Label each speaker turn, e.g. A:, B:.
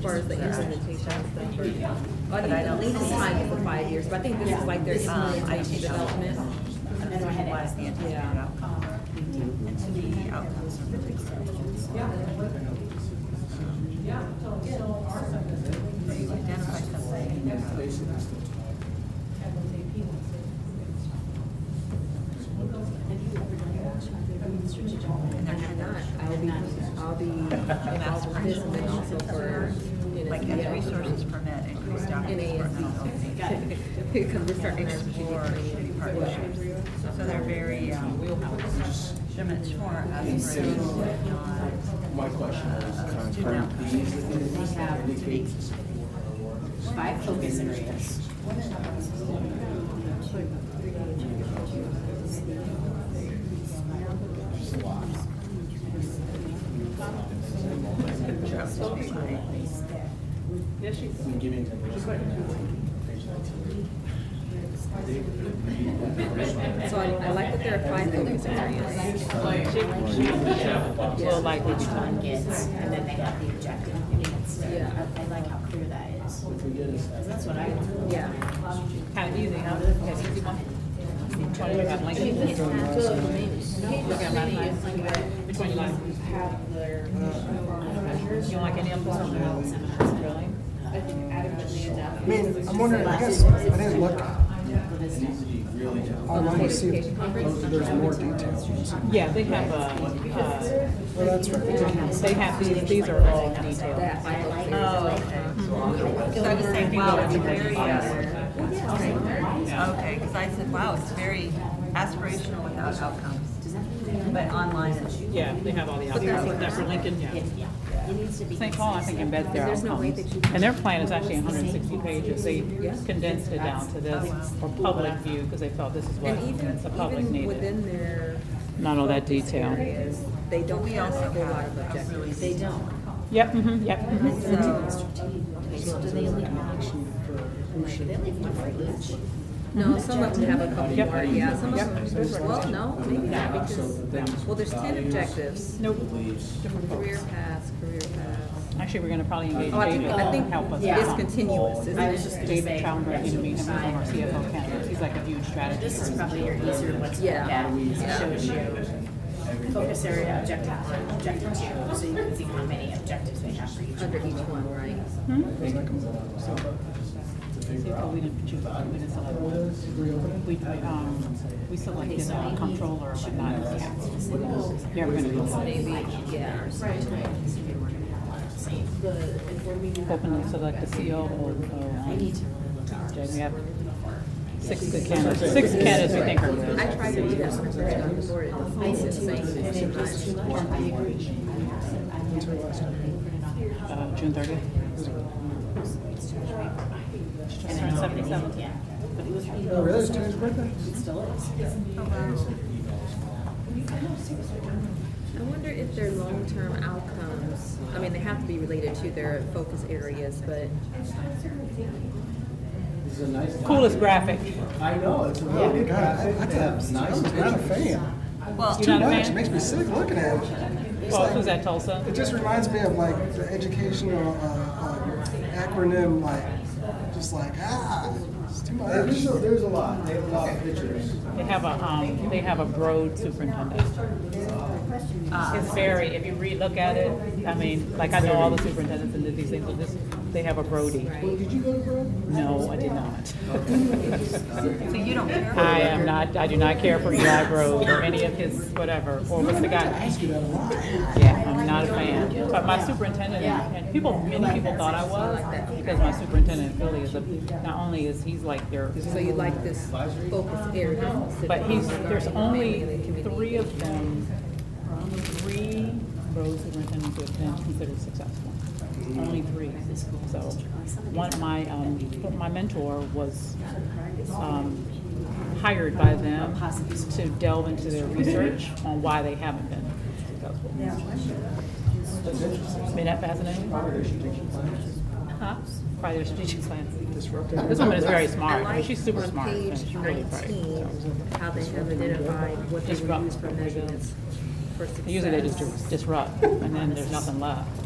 A: far as the implementation stuff. But I don't, Lisa's time for five years, but I think this is like their, um, IT development.
B: That's why I asked Angie
A: Yeah.
B: about and to me, the outcomes are really critical. So you identify something, you know, and they're
A: I'm not,
B: not,
A: I'll be, I'll be involved with this and then also for.
B: like as resources permit, increase documents for mental health.
A: Because we're starting our
B: Or
A: strategic
B: city partnerships.
A: partnerships.
B: So they're very, um, it's for us, really, not
C: My question is,
B: Uh,
C: can I
B: student
C: please
D: have to
C: indicate
D: be-
C: the support or
D: Five focus areas.
C: in giving them the
A: So I, I like that there are five focus areas.
D: Well, like which one gets, and then they have the objective against it.
A: Yeah.
D: I I like how clear that is,
C: If we get us
D: because
C: that,
D: that's what I want.
A: Yeah.
E: Kind of easy, huh? That's easy one. Twenty around like. Which one you like?
D: uh,
E: You don't like any of them? Really?
C: I mean, I'm wondering, I guess, I didn't look, I really wanted to see if those- there's more details.
E: Yeah, they have, uh, uh,
C: Well, that's right.
E: they have these, these are all detailed.
A: That five focus areas.
B: Oh, So I was saying, wow, it's very, uh, okay, because I said, wow, it's very aspirational without outcomes. But online, it's
E: Yeah, they have all the outcomes, except for Lincoln, yeah. St. Paul, I think embeds their
A: There's no way that
E: outcomes.
A: you can-
E: And their plan is actually hundred and sixty pages. They condensed it down to this public view, because they felt this is what
A: And even,
E: the public
A: even within
E: needed.
A: their
E: Not all that detail.
A: areas, they don't
B: we
A: have
B: also
A: a whole lot of
B: have a
A: objectives.
B: really.
D: They don't.
E: Yep, mhm, yep. mhm.
B: So,
D: Okay, so do they leave an action for, like, they leave one for each?
A: No, some of them have a couple
E: Yep.
A: more, yeah, some of them, well, no, maybe not, because, well, there's ten objectives.
E: Nope,
A: Career paths, career paths.
E: actually, we're gonna probably engage
A: Oh, I think,
E: David
A: I
E: to
A: think
E: help us.
A: it's continuous, isn't
D: I was just
A: it?
D: gonna
E: David
D: say,
E: Traumberg, you know, he's one of our CFO candidates, he's like a huge
D: This is
E: strategist.
D: probably your easier one to look
A: Yeah.
D: at, because it shows you focus area, objective one, objective two, so you can see how many objectives they have for each.
A: Under each one, right?
D: Hmm?
E: CFO, we didn't choose, we didn't select one. We, um, we selected a controller, but not a CFO. Yeah, we're gonna do that.
A: Yeah.
E: Openly select the E
D: I
E: COO.
D: need to really look at
E: Okay,
D: ours.
E: We have six good candidates, six candidates we think are
A: I
E: good.
A: tried to do that when I first got on the board, it was always the same at the same time.
D: I agree. What's her last name?
E: Uh, June thirtieth. Just turned seventy-seven.
D: Yeah.
C: Oh, really? It's Tony's birthday?
A: I wonder if their long-term outcomes, I mean, they have to be related to their focus areas, but
C: This is a nice.
E: Coolest graphic.
C: I know, it's a really good.
F: God, I, I
C: It's nice.
F: am not a fan.
B: well,
E: You're not a
F: Much, it makes
E: fan?
F: me sick looking at it. It's
E: Well, who's
F: like,
E: at Tulsa?
F: it just reminds me of like the educational uh, uh, acronym, like, just like, ah, it's too
C: There's a,
F: much.
C: there's a lot, they have a lot of pictures.
E: They have a, um, they have a road superintendent.
B: uh,
E: It's very, if you read, look at it, I mean, like I know all the superintendents and these things, but this, they have a roadie.
C: Did you go to Brad?
E: No, I did not.
B: so you don't care.
E: I am not, I do not care for Eli Road or any of his whatever, or what's the guy?
F: Ask you that a lot.
E: Yeah, I'm not a fan. But my superintendent, and people, many people thought I was, because my superintendent in Philly is a, not only is he's like their
A: So you like this focus area?
E: But he's, there's only three of them, three road superintendents who have been considered successful. Only three. So, one, my, um, my mentor was, um, hired by them to delve into their research on why they haven't been successful. Isn't that fascinating? Huh? Probably their strategic plan. This woman is very smart. I mean, She's super smart.
A: On
E: and
A: page
E: she's really bright.
A: nineteen, how they have identified what they
E: Just rough.
A: would use for measurements for success.
E: Usually they just dis- disrupt, and then there's nothing left.